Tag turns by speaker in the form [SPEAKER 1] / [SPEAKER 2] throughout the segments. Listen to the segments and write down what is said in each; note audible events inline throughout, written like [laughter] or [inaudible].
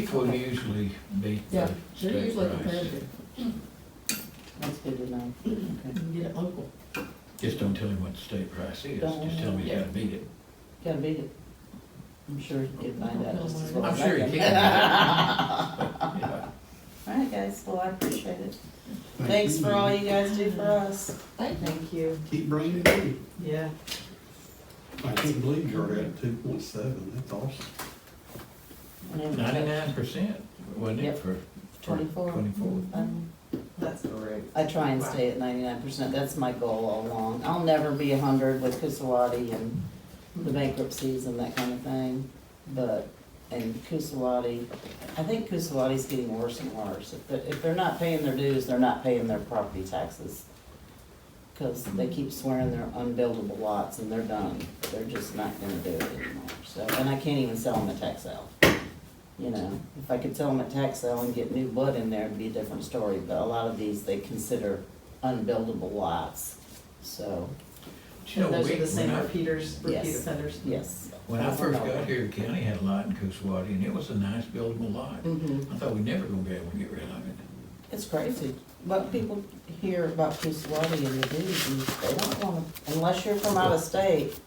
[SPEAKER 1] People usually beat
[SPEAKER 2] Yeah,
[SPEAKER 1] the
[SPEAKER 2] they're
[SPEAKER 1] state
[SPEAKER 2] usually
[SPEAKER 1] price.
[SPEAKER 2] competitive,
[SPEAKER 3] That's good to know. [clears throat]
[SPEAKER 2] you
[SPEAKER 3] Okay.
[SPEAKER 2] can get it local.
[SPEAKER 1] Just don't tell him what the state price is,
[SPEAKER 3] Don't.
[SPEAKER 1] just tell him you gotta beat it.
[SPEAKER 3] Gotta beat it. I'm sure you can find out. just as well
[SPEAKER 1] I'm
[SPEAKER 3] as
[SPEAKER 1] sure
[SPEAKER 3] I [laughs]
[SPEAKER 1] he can.
[SPEAKER 3] All right, guys, well, I appreciate it. Thanks for all you guys do for us.
[SPEAKER 2] Thank you.
[SPEAKER 3] Thank you.
[SPEAKER 4] Keep bringing it in.
[SPEAKER 3] Yeah.
[SPEAKER 4] I can't believe you're at two point seven, that's awesome.
[SPEAKER 1] Ninety-nine percent, wasn't it,
[SPEAKER 3] Yep.
[SPEAKER 1] for? for
[SPEAKER 3] Twenty-four.
[SPEAKER 1] Twenty-four.
[SPEAKER 3] Um,
[SPEAKER 5] That's correct.
[SPEAKER 3] I try and stay at ninety-nine percent, that's my goal all along. I'll never be a hundred with Kusawati and the bankruptcies and that kind of thing, but, and Kusawati, I think Kusawati's getting worse and worse. If, they're- if they're not paying their dues, they're not paying their property taxes. Cause they keep swearing they're unbuildable lots and they're done, they're just not gonna do it anymore, so, and I can't even sell them at tax sale. You know, if I could sell them at tax sale and get new blood in there, it'd be a different story, but a lot of these, they consider unbuildable lots, so,
[SPEAKER 1] You know,
[SPEAKER 5] Those
[SPEAKER 1] we-
[SPEAKER 5] are the same
[SPEAKER 1] when I-
[SPEAKER 5] repeaters, repeat
[SPEAKER 3] Yes.
[SPEAKER 5] offenders.
[SPEAKER 3] yes.
[SPEAKER 1] When I first got here, the county had a lot in Coosawaty, and it was a nice buildable lot.
[SPEAKER 3] hmm
[SPEAKER 1] I thought we'd never gonna be able to get rid of it.
[SPEAKER 3] It's crazy. But people hear about Kusawati and the dudes, and they don't wanna, unless you're from out of state,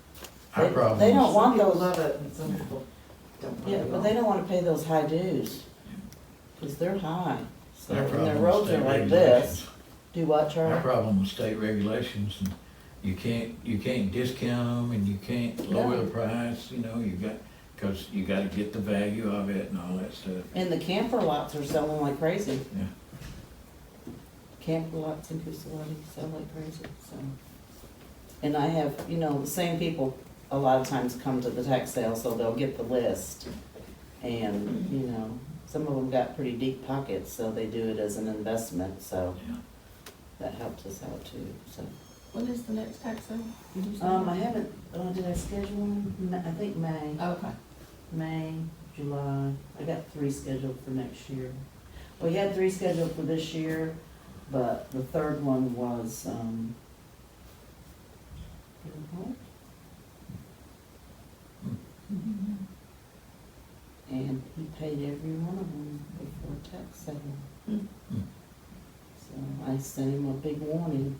[SPEAKER 1] Our
[SPEAKER 3] They-
[SPEAKER 1] problem
[SPEAKER 3] they
[SPEAKER 1] is-
[SPEAKER 3] don't
[SPEAKER 5] Some
[SPEAKER 3] want
[SPEAKER 5] people
[SPEAKER 3] those.
[SPEAKER 5] love it and some people don't want it.
[SPEAKER 3] yeah, but they don't wanna pay those high dues. Cause they're high, so,
[SPEAKER 1] our
[SPEAKER 3] and
[SPEAKER 1] problem
[SPEAKER 3] their
[SPEAKER 1] is
[SPEAKER 3] roads are
[SPEAKER 1] state
[SPEAKER 3] like
[SPEAKER 1] regulations.
[SPEAKER 3] this. Do what,
[SPEAKER 1] Our
[SPEAKER 3] Charlie?
[SPEAKER 1] problem with state regulations, and you can't, you can't discount them, and you can't lower the price, you know, you got, cause you gotta get the value of it and all that stuff.
[SPEAKER 3] And the camper lots are selling like crazy.
[SPEAKER 1] Yeah.
[SPEAKER 3] Camper lots in Kusawati sell like crazy, so. And I have, you know, the same people a lot of times come to the tax sale, so they'll get the list. And, you know, some of them got pretty deep pockets, so they do it as an investment, so
[SPEAKER 1] Yeah.
[SPEAKER 3] that helped us out too, so.
[SPEAKER 6] When is the next tax sale? Did you say?
[SPEAKER 3] Um, I haven't, oh, did I schedule one? Ma- I think May.
[SPEAKER 6] Oh, Okay.
[SPEAKER 3] May, July, I got three scheduled for next year. We had three scheduled for this year, but the third one was, um,
[SPEAKER 1] Hmm.
[SPEAKER 5] Mm-hmm.
[SPEAKER 3] and he paid every one of them before tax sale.
[SPEAKER 1] Mm-hmm.
[SPEAKER 3] So I sent him a big warning.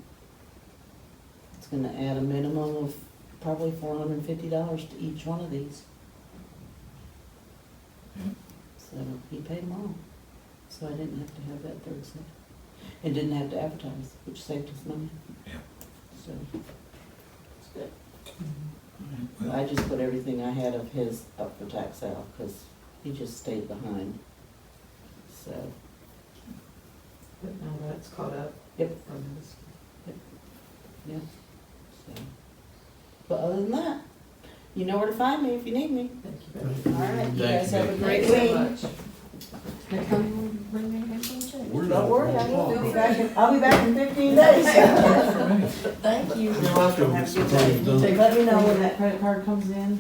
[SPEAKER 3] It's gonna add a minimum of probably four hundred and fifty dollars to each one of these.
[SPEAKER 1] Yeah.
[SPEAKER 3] So he paid them all, so I didn't have to have that third set. And didn't have to advertise, which saved us money.
[SPEAKER 1] Yeah.
[SPEAKER 3] So, it's good.
[SPEAKER 1] Well,
[SPEAKER 3] I just put everything I had of his up for tax sale, cause he just stayed behind. So,
[SPEAKER 5] But now that's caught up.
[SPEAKER 3] Yep.
[SPEAKER 5] on this.
[SPEAKER 3] yeah, so. But other than that, you know where to find me if you need me.
[SPEAKER 5] Thank you very much.
[SPEAKER 3] All right, you guys have a
[SPEAKER 1] Thank you,
[SPEAKER 3] great
[SPEAKER 5] Thank
[SPEAKER 3] week.
[SPEAKER 5] you so much.
[SPEAKER 6] Now come and bring me a handful of checks.
[SPEAKER 4] We're
[SPEAKER 3] Don't
[SPEAKER 4] not
[SPEAKER 3] worry, I
[SPEAKER 4] gonna
[SPEAKER 3] will
[SPEAKER 4] talk.
[SPEAKER 3] be back, in- I'll be back in fifteen days.
[SPEAKER 1] for me.
[SPEAKER 6] Thank you.
[SPEAKER 4] Still, it's done.
[SPEAKER 3] Let me know when that credit card comes in.